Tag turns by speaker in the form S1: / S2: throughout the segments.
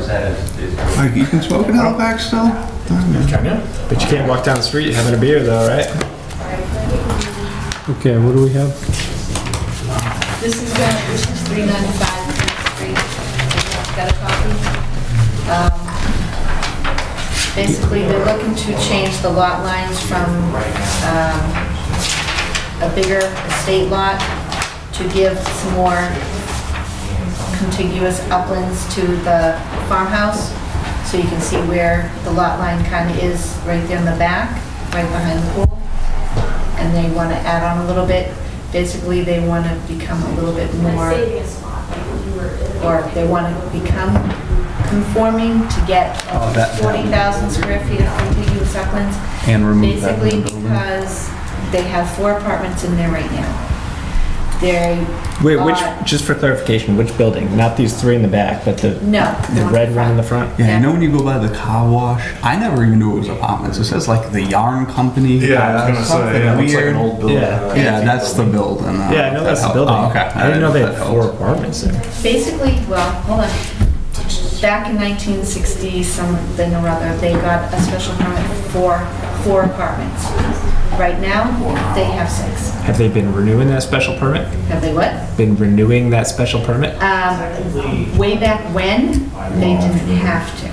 S1: that is, is
S2: Like, you can smoke in Halifax still?
S3: Can you? But you can't walk down the street having a beer though, right?
S4: Okay, what do we have?
S5: This is, uh, this is 395 Street. Got a copy? Um, Basically, they're looking to change the lot lines from um, a bigger estate lot to give some more contiguous uplands to the farmhouse. So you can see where the lot line kind of is right there in the back, right behind the pool and they want to add on a little bit. Basically, they want to become a little bit more, or they want to become conforming to get
S2: Oh, that-
S5: 40,000 square feet of contiguous uplands.
S2: And remove that
S5: Basically,
S2: one building.
S5: because they have four apartments in there right now. They,
S3: Wait, which,
S5: Uh,
S3: just for clarification, which building? Not these three in the back, but the,
S5: no.
S3: the red one in the front?
S2: Yeah, you know when you go by the car wash? I never even knew it was apartments. It says like the yarn company.
S6: Yeah, I was gonna
S2: Something
S6: say, yeah, it looks like
S2: weird.
S6: an old building.
S3: Yeah.
S6: uh,
S2: Yeah, that's the building. uh,
S3: Yeah, I know
S2: that
S3: that's the
S2: helped.
S3: building.
S2: Oh, okay.
S3: I didn't know they
S2: if
S3: had
S2: that
S3: four
S2: helped.
S3: apartments there.
S5: Basically, well, hold on. Back in 1960 something or other, they got a special permit for four apartments. Right now, they have six.
S3: Have they been renewing that special permit?
S5: Have they what?
S3: Been renewing that special permit?
S5: Um, Way back when, they didn't have to.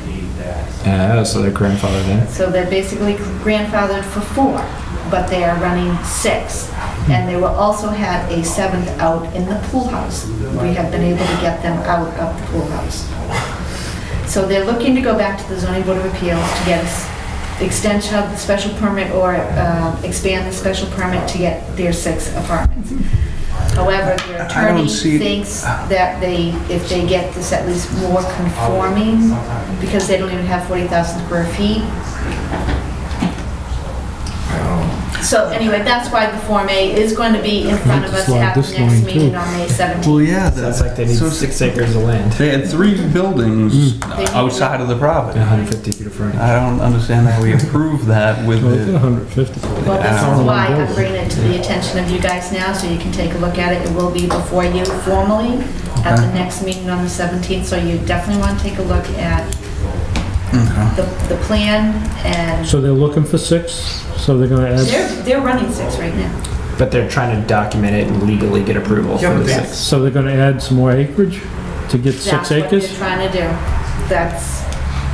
S3: Oh, so their grandfather then.
S5: So they're basically grandfathered for four, but they are running six. And they will also have a seventh out in the pool house. We have been able to get them out of the pool house. So they're looking to go back to the zoning board of appeals to get s- extension of the special permit or uh, expand the special permit to get their six apartments. However, their
S2: I- I don't
S5: attorney
S2: see-
S5: thinks that they, if they get this at least more conforming, because they don't even have 40,000 square feet.
S4: Oh.
S5: So anyway, that's why the Form A is going to be in front of us
S4: Slide
S5: at the
S4: this
S5: next
S4: line,
S5: meeting
S4: too.
S5: on May 17th.
S2: Well, yeah. that-
S3: Sounds like they need
S2: so-
S3: six Hmm. acres of land.
S2: They had three buildings outside of the property.
S3: 150 feet of frontage.
S2: I don't understand how we approve that with
S4: Well, it's
S2: the.
S4: 150.
S5: Well, this
S2: Yeah.
S5: is why I'm bringing it to the attention of you guys now, so you can take a look at it. It will be before you formally at the next meeting on the 17th, so you definitely want to take a look at the, the plan and
S4: So they're looking for six, so they're gonna
S5: they're,
S4: add,
S5: they're running six right now.
S3: But they're trying to document it and legally get approval
S6: Yeah,
S3: for
S6: but
S3: the
S6: they-
S3: six.
S4: so they're gonna add some more acreage to get six
S5: That's what they're
S4: acres?
S5: trying to do. That's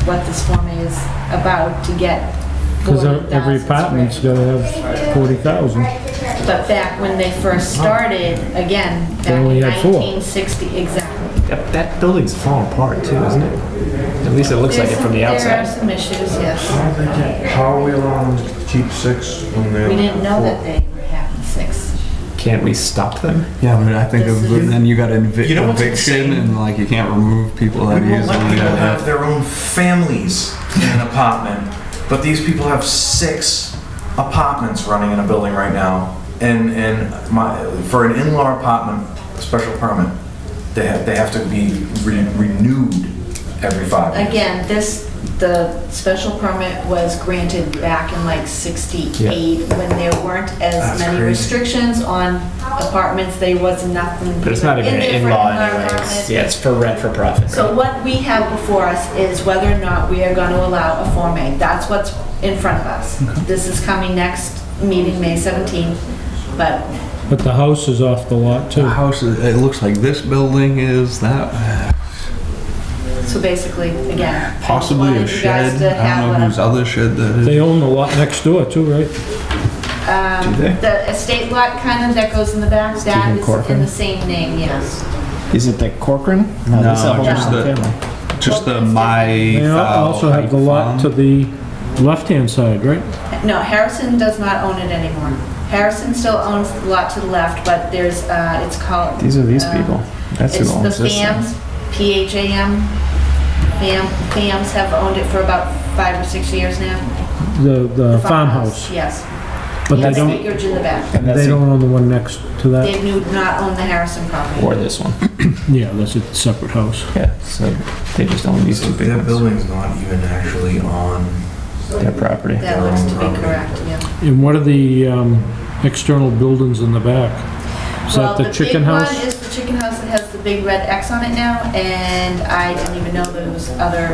S5: what this Form A is about, to get
S4: Because
S5: 40,000
S4: every
S5: square
S4: apartment's gotta have 40,000.
S5: But back when they first started, again, back
S4: They
S5: in
S4: only had four.
S5: 1960, exactly.
S3: That, that building's falling apart too, isn't it? At least it looks like it
S5: There's
S3: from the
S5: some- There are
S3: outside.
S5: some issues, yes.
S6: How they get- How are we allowing them to keep six when they're...
S5: We didn't know that they were having six.
S3: Can't we stop them?
S2: Yeah, but I think
S5: This
S2: of-
S5: is-
S2: then you got invi-
S6: You know what's
S2: eviction
S6: insane?
S2: and like you can't remove people
S6: We
S2: that
S6: won't let
S2: easily.
S6: people have their own families in an apartment, but these people have six apartments running in a building right now. And, and my, for an in-law apartment, special permit, they have, they have to be re- renewed every five years.
S5: Again, this, the special permit was granted back in like 68, when there weren't as
S6: That's
S5: many
S6: crazy.
S5: restrictions on apartments, there was nothing.
S3: But it's not even an
S5: there for
S3: in-law
S5: in-law
S3: anyways.
S5: apartments.
S3: Yeah, it's for rent for profit.
S5: So
S3: right?
S5: what we have before us is whether or not we are going to allow a Form A. That's what's in front of us. This is coming next meeting, May 17th, but
S4: But the house is off the lot
S2: The
S4: too.
S2: house, is- it looks like this building is that,
S5: So basically, again. I
S2: possibly a
S5: wanted you guys
S2: shed.
S5: to
S2: I
S5: have
S2: don't
S5: what
S2: know
S5: I'm-
S2: whose other shed that is.
S4: They own the lot next door too, right?
S5: Um,
S2: Do they?
S5: The estate lot kind of that goes in the back, that is in
S3: Corcoran?
S5: the same name, yes.
S3: Is it the Corcoran?
S2: No,
S3: that's a whole
S2: just
S3: different
S2: the-
S3: family.
S2: Just the my. uh,
S4: They al- also have the lot to the left-hand side, right?
S5: No, Harrison does not own it anymore. Harrison still owns the lot to the left, but there's, uh, it's called.
S3: These are these
S5: um,
S3: people. That's who owns
S5: It's the
S3: this. thing.
S5: FAMs, P-H-A-M. FAM, FAMs have owned it for about five or six years now.
S4: The, the farmhouse,
S5: Yes.
S4: but they
S5: Yes,
S4: don't, Uh,
S5: acreage in the back.
S3: And that's
S4: they
S3: who-
S4: don't own the one next to that.
S5: They do not own the Harrison property.
S3: Or this one.
S4: Yeah, that's a separate house.
S3: Yeah, so they just own these two big
S6: Their
S3: ones.
S6: building's not even actually on...
S3: Their property.
S5: That looks to be correct, yeah.
S4: And what are the um, external buildings in the back? Is that the chicken
S5: Well, the big one
S4: house?
S5: is the chicken house that has the big red X on it now, and I didn't even know there was other